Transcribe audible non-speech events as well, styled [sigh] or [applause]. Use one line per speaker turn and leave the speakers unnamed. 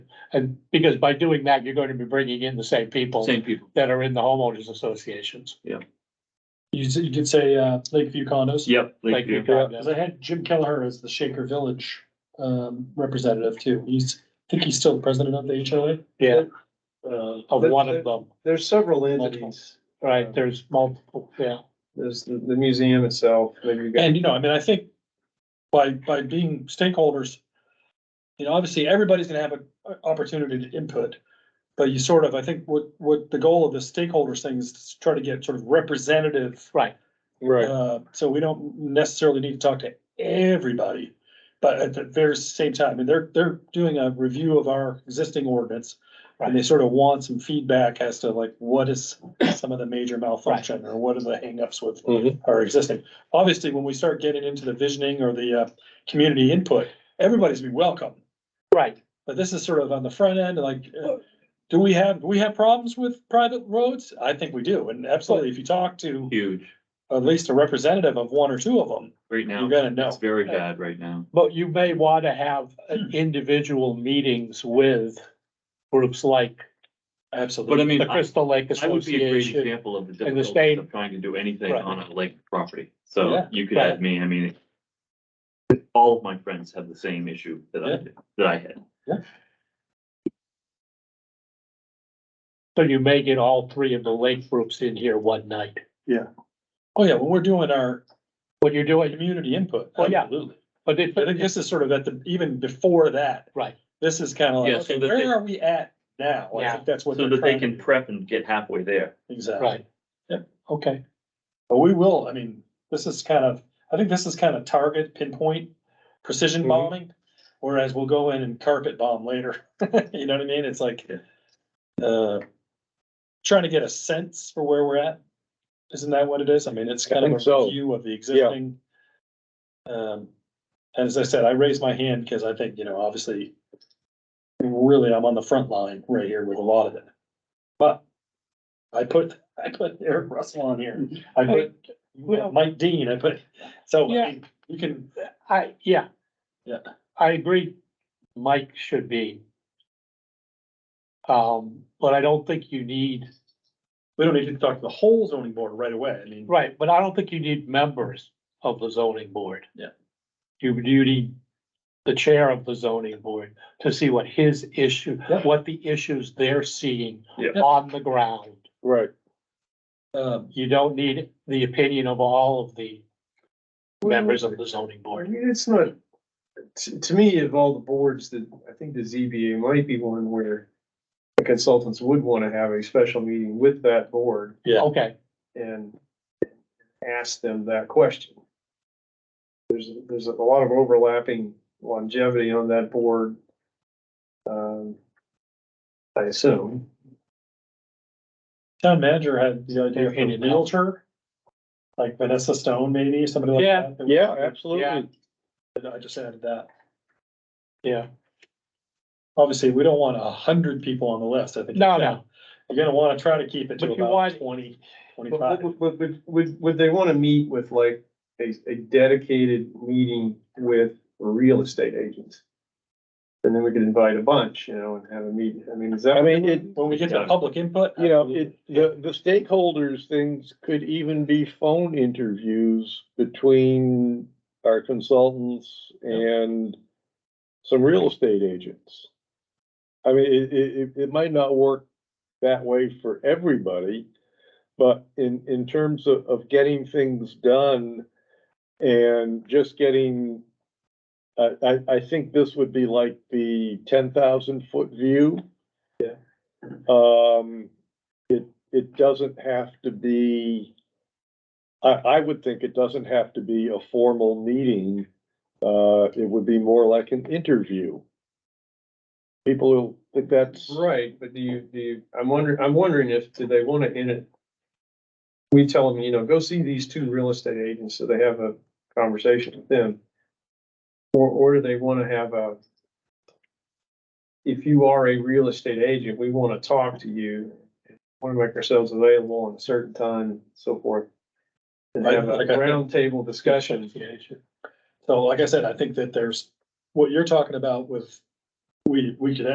And because by doing that, you're going to be bringing in the same people
Same people.
that are in the homeowners associations.
You said, you did say, uh, Lakeview condos?
Yep.
Like you
Lakeview.
do.
Cause I had Jim Kelleher as the Shaker Village, um, representative too. He's, I think he's still the president of the HOA.
Yeah,
Uh,
of
there-
one of
there-
them,
There's several
Multiple.
entities.
right? There's multiple, yeah.
There's the, the museum itself, maybe you got.
And, you know, I mean, I think by, by being stakeholders, you know, obviously, everybody's gonna have an opportunity to input. But you sort of, I think what, what the goal of the stakeholders thing is to try to get sort of representative.
Right.
Right.
Uh, so we don't necessarily need to talk to everybody. But at the very same time, I mean, they're, they're doing a review of our existing ordinance. And they sort of want some feedback as to like, what is [clears throat] some of the major malfunction or what are the hangups with
Mhm.
Mm-hmm.
our existing? Obviously, when we start getting into the visioning or the, uh, community input, everybody's be welcome.
Right,
But this is sort of on the front end, like, uh, do we have, do we have problems with private roads? I think we do. And absolutely, if you talk to
Huge.
at least a representative of one or two of them,
Right now,
you're gonna
it's
know.
very bad right now.
but you may want to
[clears throat]
have uh, individual meetings with groups like
But I
Absolutely.
mean,
the
I
Crystal Lake
I would be a great
Association.
example of the
and the
difficulty
state-
of trying to do anything
Right.
on a lake property. So
Yeah,
you could
right.
add me, I mean, all of my friends have the same issue that I
Yeah.
did, that I had.
So you may get all three of the lake groups in here one night.
Oh, yeah, when we're doing our
When you're doing,
community input.
Oh,
Well, yeah.
Absolutely.
but it,
I think this is sort of at the, even before that,
right,
this is kind of like,
Yeah, so
okay,
that they-
where are we at now? I
Yeah.
think that's what.
So
they're
that they
trying to
can
do.
prep and get halfway there.
Exactly.
right.
Yep.
Okay,
But we will, I mean, this is kind of, I think this is kind of target pinpoint precision
Mhm.
bombing. Whereas we'll go in and carpet bomb later. [laughs] You know what I mean? It's like, uh, trying to get a sense for where we're at. Isn't that what it is? I mean, it's kind of
think so.
a review of the existing. Um, and as I said, I raised my hand because I think, you know, obviously, really, I'm on the front line right here with a lot of it. But I put, I put Eric Russell on here. I put
Well-
Mike Dean, I put, so I
Yeah.
mean, you can,
I, yeah.
Yeah.
I agree, Mike should be. Um, but I don't think you need,
we don't need to talk to the whole zoning board right away. I mean,
right, but I don't think you need members of the zoning board.
Yeah.
You, you need the chair of the zoning board to see what his issue,
Yeah.
what the issues they're seeing
Yeah.
on the ground.
Right.
um,
You don't need the opinion of all of the members of the zoning
I
board.
mean, It's not, to, to me, of all the boards that, I think the ZBA might be one where the consultants would want to have a special meeting with that board
yeah.
Okay,
and ask them that question. There's, there's a lot of overlapping longevity on that board. Um, I assume.
Town manager had the idea of
In
a
and out.
realtor, like Vanessa Stone, maybe, somebody like
Yeah.
that. that
Yeah.
absolutely.
would- I just added that.
yeah,
Obviously, we don't want a hundred people on the list, I think.
no, no,
You're gonna wanna try to keep it to
But you
about
want-
twenty, twenty-five.
But, but, but would, would they want to meet with like a, a dedicated meeting with real estate agents? And then we could invite a bunch, you know, and have a meeting. I mean, is that?
I mean, it,
When we get to public input.
you know,
absolutely.
it, the, the stakeholders things could even be phone interviews between our consultants and some real estate agents. I mean, it, it, it- it might not work that way for everybody, but in, in terms of, of getting things done and just getting, I, I, I think this would be like the ten thousand foot view.
Yeah.
Um, it, it doesn't have to be, I, I would think it doesn't have to be a formal meeting. Uh, it would be more like an interview. People who think that's.
Right, but do you, do you, I'm wondering, I'm wondering if, do they want to in it? We tell them, you know, go see these two real estate agents, so they have a conversation with them. Or, or do they want to have a? If you are a real estate agent, we want to talk to you, want to make ourselves available on a certain time and so forth. And have a
Like I-
roundtable discussion.
So like I said, I think that there's, what you're talking about with, we, we could